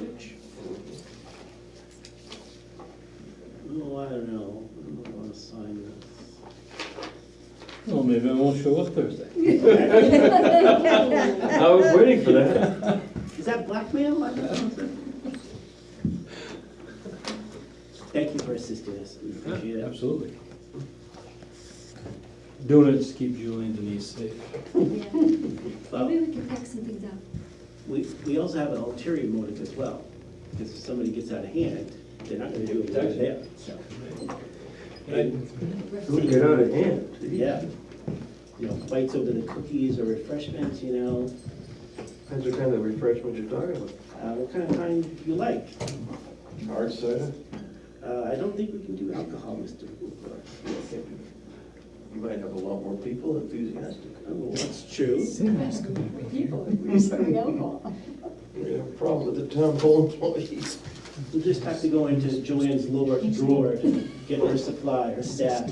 Oh, Well, maybe I won't show up Thursday. I was waiting for that. Is that blackmail? I don't know. Thank you for assisting us, we appreciate it. Absolutely. Doing it to keep Julie and Denise safe. Maybe Well, we can pack some things up. we, we also have an ulterior motive as well, because if somebody gets out of hand, they're not gonna do it when they're there, so. And, Who get out of hand? Yeah, you know, fights over the cookies or refreshments, you know, Depends what kind of refreshment you're talking about. uh, what kind of kind you like. Hard cider? Uh, I don't think we can do alcohol, Mr. Cooper. You might have a lot more people enthusiastic. Oh, that's true. We're gonna have a problem with the town hall employees. We'll just have to go into Joanne's lower drawer to get her supply, her staff.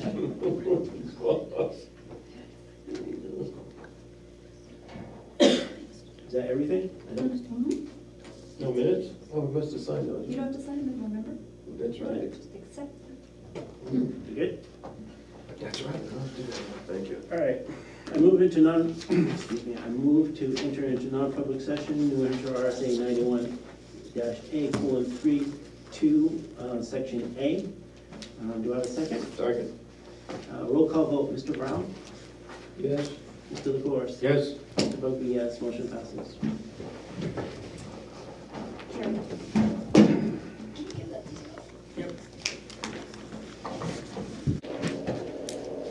Is that everything? I don't- No minutes? Oh, we must have signed those. You don't have to sign them, remember? That's right. Just accept them. You good? That's right. we don't do that. Thank you. All right. I move into non, excuse me, I move to enter into non-public session, New Hampshire RSA ninety-one dash A colon three, two, uh, section A. Um, do I have a second? Second. Uh, roll call vote, Mr. Brown, Yes. Mr. LaFors, Yes. Mr. Bugby, yes, uh, motion passes. Carrie.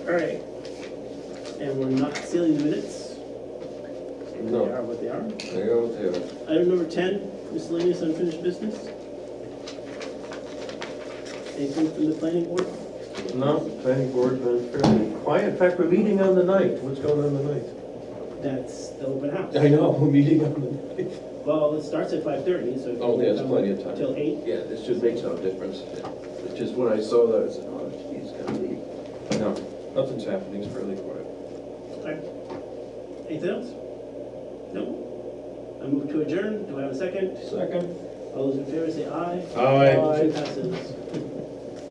All right. And we're not sealing the minutes. And No. They are what they are. They go there. Item number 10, miscellaneous unfinished business. Anything from the planning board? No, planning board's been fairly quiet. In fact, we're meeting on the ninth. What's going on the ninth? That's the open house. I know, we're meeting on the ninth. Well, it starts at 5:30, so. if you Oh, there's come plenty of time. Till 8. Yeah, this should make some difference. It's just when I saw that, I said, oh, geez, gotta be. No, nothing's happening, it's fairly quiet. Okay. Anything else? No? I move to adjourn. Do I have a second? Second. All those in favor say aye. Aye. Motion passes.